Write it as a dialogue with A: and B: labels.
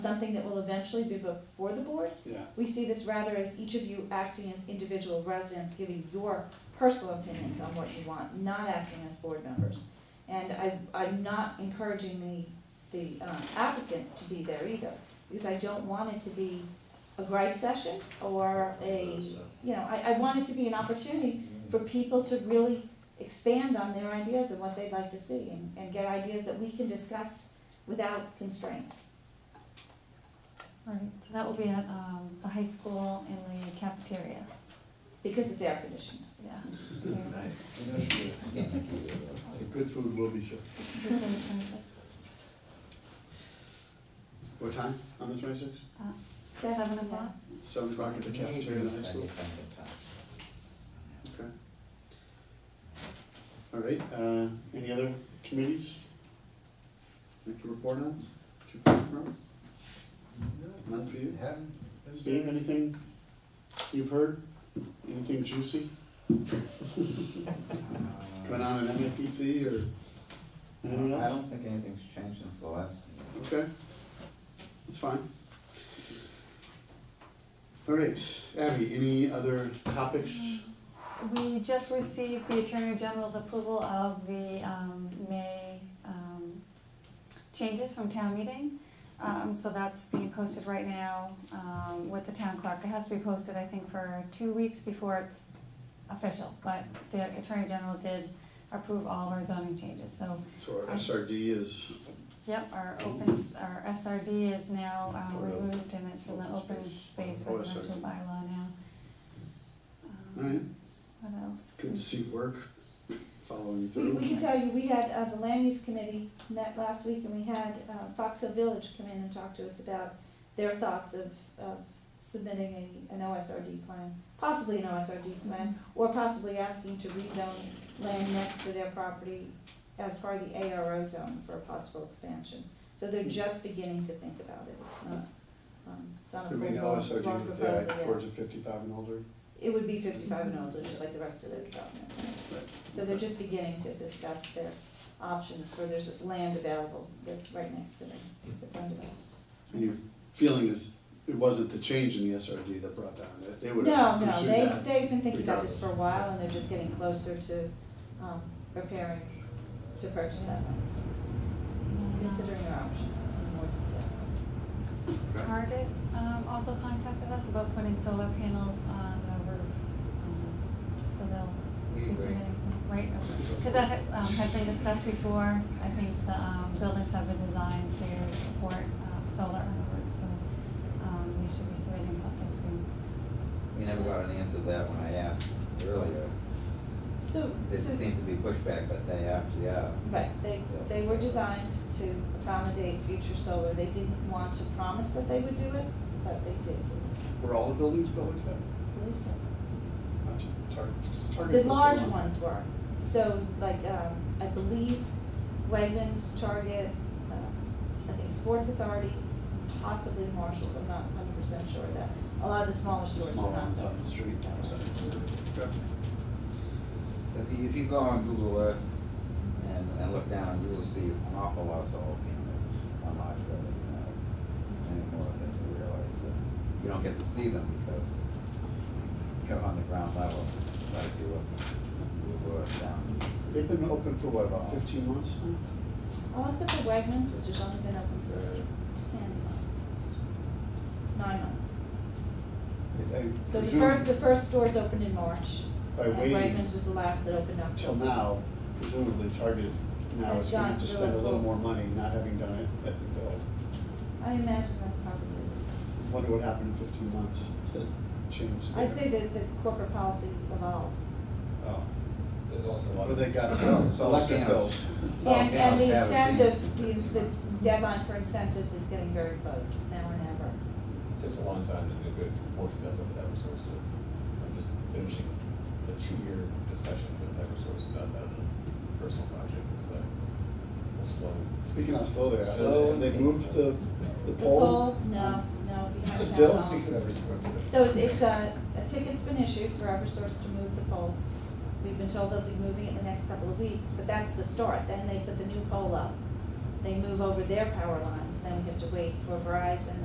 A: something that will eventually be before the board.
B: Yeah,
A: We see this rather as each of you acting as individual residents, giving your personal opinions on what you want, not acting as board members. And I, I'm not encouraging the, the um, applicant to be there either, because I don't want it to be a gripe session or a, you know, I, I want it to be an opportunity for people to really expand on their ideas and what they'd like to see, and, and get ideas that we can discuss without constraints.
C: Right, so that will be at um, the high school in the cafeteria,
A: Because it's air conditioned.
C: yeah.
D: Nice.
B: so good food will be served.
C: Tuesday, the twenty-sixth,
B: What time on the twenty-sixth?
C: seven o'clock.
B: Seven o'clock at the cafeteria in the high school? Okay. All right, uh, any other committees? Like to report on, to report from, none for you? Steve, anything you've heard? Anything juicy going on in MAPC or anything
D: Uh, I
B: else?
D: don't think anything's changed since the last meeting.
B: Okay, that's fine. All right, Abby, any other topics?
C: We just received the Attorney General's approval of the um, May um, changes from town meeting. Um, So that's being posted right now um, with the town clerk. It has to be posted, I think, for two weeks before it's official. But the Attorney General did approve all of our zoning changes, so
B: So our SRD is,
C: Yep, our open, s- our SRD is now um,
B: Part of
C: removed and it's in the
B: open
C: open
B: space.
C: space
B: Oh,
C: residential
B: SRD.
C: bylaw now.
B: all
C: Um,
B: right,
C: What else?
B: good to see work following
A: We,
B: through.
A: we can tell you, we had, uh, the land use committee met last week and we had, uh, Fox Hill Village come in and talk to us about their thoughts of, of submitting a, an OSRD plan, possibly an OSRD plan,
C: Mm-hmm.
A: or possibly asking to rezone land next to their property as part of the ARO zone for a possible expansion. So
B: Hmm.
A: they're just beginning to think about it, it's not, um, it's not a
B: Do
A: full
B: we
A: blown
B: know SRD with
A: proposal
B: that
A: yet.
B: towards a fifty-five and older?
A: It would be fifty-five and older, just like the rest of their development.
B: Right.
A: So they're just beginning to discuss their options for there's land available that's right next to them,
B: Hmm.
A: that's undeveloped.
B: And your feeling is, it wasn't the change in the SRD that brought down, that they would
A: No,
B: have
A: no,
B: pursued
A: they,
B: that.
A: they've been thinking about this for a while and they're just getting closer to, um, preparing to purchase that land, considering their options in more detail.
B: Okay.
C: Target um, also contacted us about putting solar panels on the roof. um, So
D: We
C: they'll be
D: agree.
C: submitting some, right, because that had um, had been discussed before. I think the um, buildings have been designed to support um, solar on the roof, so um, we should be submitting something soon.
D: We never got an answer to that when I asked earlier.
A: So,
D: They
A: so-
D: seem to be pushback, but they actually are.
A: Right, they, they were designed to accommodate future solar, they didn't want to promise that they would do it, but they did do it,
B: Were all the buildings built like that?
A: I believe so.
B: Not just Target, just Target
A: The
B: built
A: large
B: them.
A: ones were, so like, um, I believe Wegmans, Target, uh, I think Sports Authority, possibly Marshalls, I'm not hundred percent sure of that. A lot of the smaller
B: The
A: stores
B: small
A: were not
B: ones
A: built.
B: on the street, so. Okay.
D: If you, if you go on Google Earth and, and look down, you will see an awful lot of solar panels on large buildings now. It's many more than you realize. Uh, You don't get to see them because you're on the ground level, but if you look, Google Earth down, you can see.
B: They've been open for what, about fifteen months now?
A: All except for Wegmans, which has only been open for ten months, nine months.
B: I- I
A: So the
B: presume
A: first, the first stores opened in March,
B: By
A: and
B: waiting
A: Wegmans was the last that opened up.
B: till now, presumably Target now
A: Has
B: is gonna
A: gone
B: have to
A: through
B: spend a
A: a
B: little more
A: full s-
B: money not having done it at the bill.
A: I imagine that's probably the case.
B: Wonder what happened in fifteen months that changed their.
A: I'd say that the corporate policy evolved.
B: Oh,
E: There's also a lot
B: what
E: of.
B: they got,
D: So-
B: so
D: so
B: electric
D: scams.
B: bills.
D: Solar
A: And, and
D: panels
A: the
D: have a fee.
A: incentives, the, the deadline for incentives is getting very close, it's now or never.
E: It takes a long time to do a good working mess with Eversource, so I'm just finishing the two-year discussion with Eversource about that personal project, it's like, it's slow.
B: Speaking of slowly,
E: Slow.
B: have they moved the, the
A: The
B: pole?
A: poll, no, no, we haven't had
B: Still?
A: a poll.
E: Speaking of Eversource.
A: So it's, it's a, a ticket's been issued for Eversource to move the poll. We've been told they'll be moving it in the next couple of weeks, but that's the start, then they put the new poll up. they move over their power lines, then we have to wait for Verizon